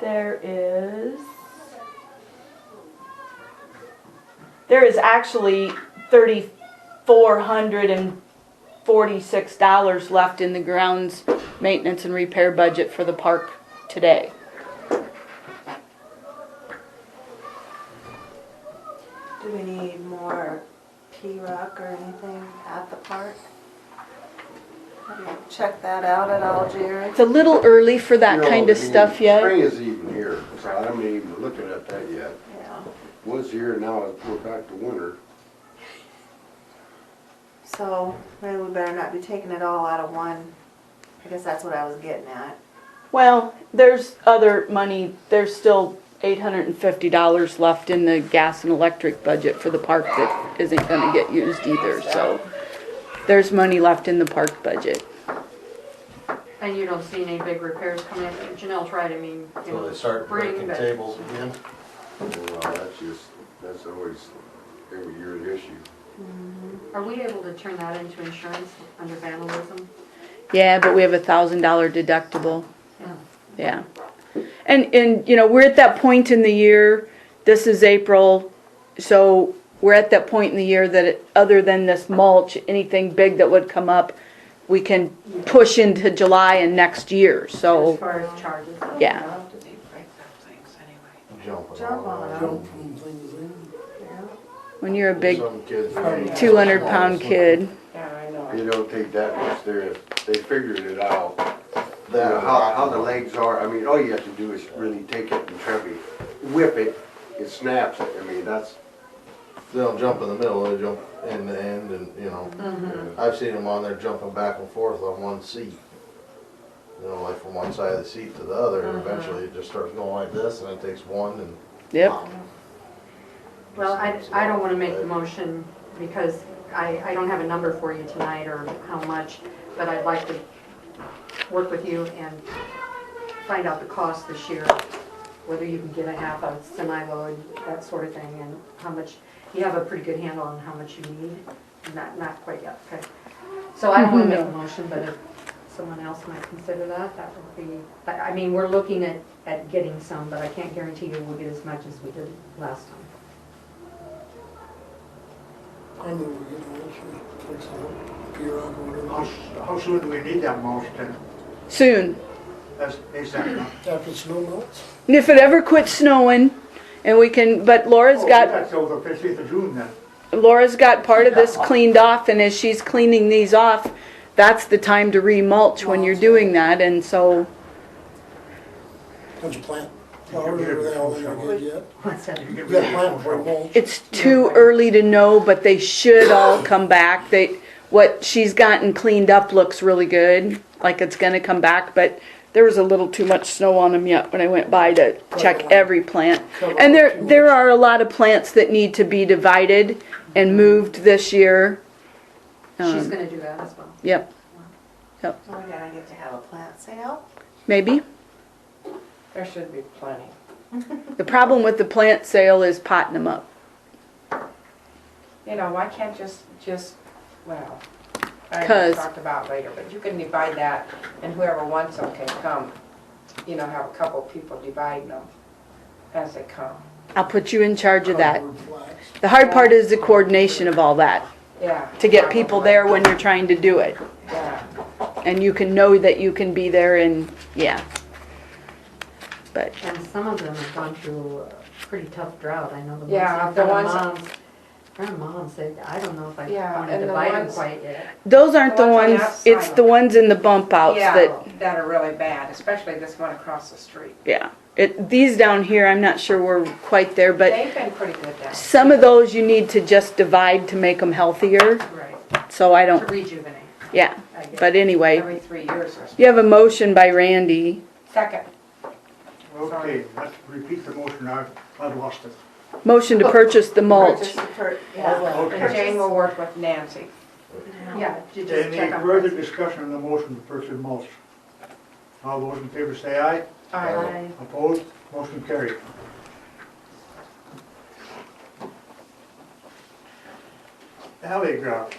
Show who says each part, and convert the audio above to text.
Speaker 1: There is. There is actually thirty-four hundred and forty-six dollars left in the grounds maintenance and repair budget for the park today.
Speaker 2: Do we need more P-Rock or anything at the park? Have you checked that out at all, Jerry?
Speaker 1: It's a little early for that
Speaker 3: You know,
Speaker 1: kind of
Speaker 3: I mean,
Speaker 1: stuff yet.
Speaker 3: Spring is even here, so I haven't even looked at that yet.
Speaker 2: Yeah.
Speaker 3: Once here, now we're back to winter.
Speaker 2: So maybe we better not be taking it all out of one. I guess that's what I was getting at.
Speaker 1: Well, there's other money, there's still eight hundred and fifty dollars left in the gas and electric budget for the park that isn't gonna get used either, so. There's money left in the park budget.
Speaker 4: And you don't see any big repairs coming in, Janelle tried, I mean, you know.
Speaker 5: So they start
Speaker 4: bring,
Speaker 5: breaking
Speaker 4: but-
Speaker 5: tables again.
Speaker 3: Well, uh, that's just, that's always every year an issue.
Speaker 4: Are we able to turn that into insurance under vandalism?
Speaker 1: Yeah, but we have a thousand dollar deductible.
Speaker 4: Yeah.
Speaker 1: Yeah. And, and, you know, we're at that point in the year, this is April, so we're at that point in the year that, it- other than this mulch, anything big that would come up, we can push into July and next year,
Speaker 4: As
Speaker 1: so,
Speaker 4: far as charges.
Speaker 1: yeah.
Speaker 5: Jumping
Speaker 2: Jump
Speaker 5: on.
Speaker 2: on
Speaker 5: them.
Speaker 2: them.
Speaker 6: jump from things in.
Speaker 1: When you're a big
Speaker 5: Some kids. they-
Speaker 1: two hundred pound kid,
Speaker 6: Yeah, I know.
Speaker 3: They don't take that much there, they figured it out. You
Speaker 5: That-
Speaker 3: know, how, how the legs are, I mean, all you have to do is really take it and try to whip it, it snaps it, I mean, that's.
Speaker 5: They'll jump in the middle, they jump in the end and, you know, I've seen them on there jumping back and forth on one seat. You know, like from one side of the seat to the other and eventually it just starts going like this and it takes one and.
Speaker 1: yep.
Speaker 4: Well, I, I don't wanna make the motion because I, I don't have a number for you tonight or how much, but I'd like to work with you and find out the cost this year, whether you can get a half a semi-load, that sort of thing, and how much, you have a pretty good handle on how much you need, not, not quite yet, okay? So I don't wanna make a motion, but if someone else might consider that, that would be, I, I mean, we're looking at, at getting some, but I can't guarantee you we'll get as much as we did last time.
Speaker 6: I knew we were gonna actually fix the pier up or
Speaker 7: How,
Speaker 6: whatever.
Speaker 7: s- how soon do we need that motion?
Speaker 1: Soon.
Speaker 7: That's ASAP, huh?
Speaker 6: After snow melts,
Speaker 1: And if it ever quits snowing, and we can, but Laura's
Speaker 7: Oh,
Speaker 1: got
Speaker 7: That's over fifteenth of June then.
Speaker 1: Laura's got part of this cleaned off, and as she's cleaning these off, that's the time to remulch when you're doing that, and so,
Speaker 6: don't you plant flowers or whatever they did yet?
Speaker 4: What's that?
Speaker 7: You get
Speaker 6: You
Speaker 7: rid
Speaker 6: gotta
Speaker 7: of
Speaker 6: plant
Speaker 7: the
Speaker 6: for
Speaker 7: motion.
Speaker 6: mulch.
Speaker 1: it's too early to know, but they should all come back. They, what she's gotten cleaned up looks really good, like it's gonna come back, but there was a little too much snow on them yet when I went by to check every plant. And there, there are a lot of plants that need to be divided and moved this year.
Speaker 4: She's
Speaker 1: Um,
Speaker 4: gonna do that as well.
Speaker 1: Yep,
Speaker 2: Are we gonna get to have a plant sale?
Speaker 1: maybe.
Speaker 8: There should be plenty.
Speaker 1: The problem with the plant sale is potting them up.
Speaker 8: You know, why can't just, just, well, I
Speaker 1: Because-
Speaker 8: will talk about later, but you can divide that and whoever wants them can come. You know, have a couple people dividing them as they come.
Speaker 1: I'll put you in charge of that.
Speaker 6: Covered flax.
Speaker 1: The hard part is the coordination of all that,
Speaker 8: Yeah.
Speaker 1: to get people there when you're trying to do it.
Speaker 8: Yeah.
Speaker 1: And you can know that you can be there and, yeah. But,
Speaker 4: And some of them have gone through a pretty tough drought, I know the ones
Speaker 8: Yeah,
Speaker 4: in
Speaker 8: the
Speaker 4: front of
Speaker 8: ones-
Speaker 4: moms. Front of mom said, I don't know if I
Speaker 8: Yeah,
Speaker 4: wanted
Speaker 8: and
Speaker 4: to
Speaker 8: the
Speaker 4: buy them
Speaker 8: ones-
Speaker 4: quite yet.
Speaker 1: those aren't the
Speaker 8: The ones on
Speaker 1: ones,
Speaker 8: the
Speaker 1: it's
Speaker 8: outside.
Speaker 1: the ones in the bump outs
Speaker 8: Yeah,
Speaker 1: that,
Speaker 8: that are really bad, especially this one across the street.
Speaker 1: yeah. It, these down here, I'm not sure we're quite there, but
Speaker 8: They've been pretty good down
Speaker 1: some of those you need to just divide to make them healthier,
Speaker 8: Right.
Speaker 1: so I
Speaker 4: To
Speaker 1: don't,
Speaker 4: rejuvenate,
Speaker 1: yeah.
Speaker 8: I guess.
Speaker 1: But anyway,
Speaker 8: Every three years or so.
Speaker 1: you have a motion by Randy.
Speaker 8: Second.
Speaker 7: Okay, let's repeat the motion, I, I lost it.
Speaker 1: Motion to purchase the mulch.
Speaker 2: Just for-
Speaker 8: Yeah,
Speaker 2: yeah.
Speaker 8: And Jane will work with Nancy.
Speaker 4: yeah, to just
Speaker 7: Any
Speaker 4: check on.
Speaker 7: further discussion on the motion to purchase mulch? All those in favor say aye,
Speaker 4: Aye.
Speaker 7: opposed, motion carried. Alley grout,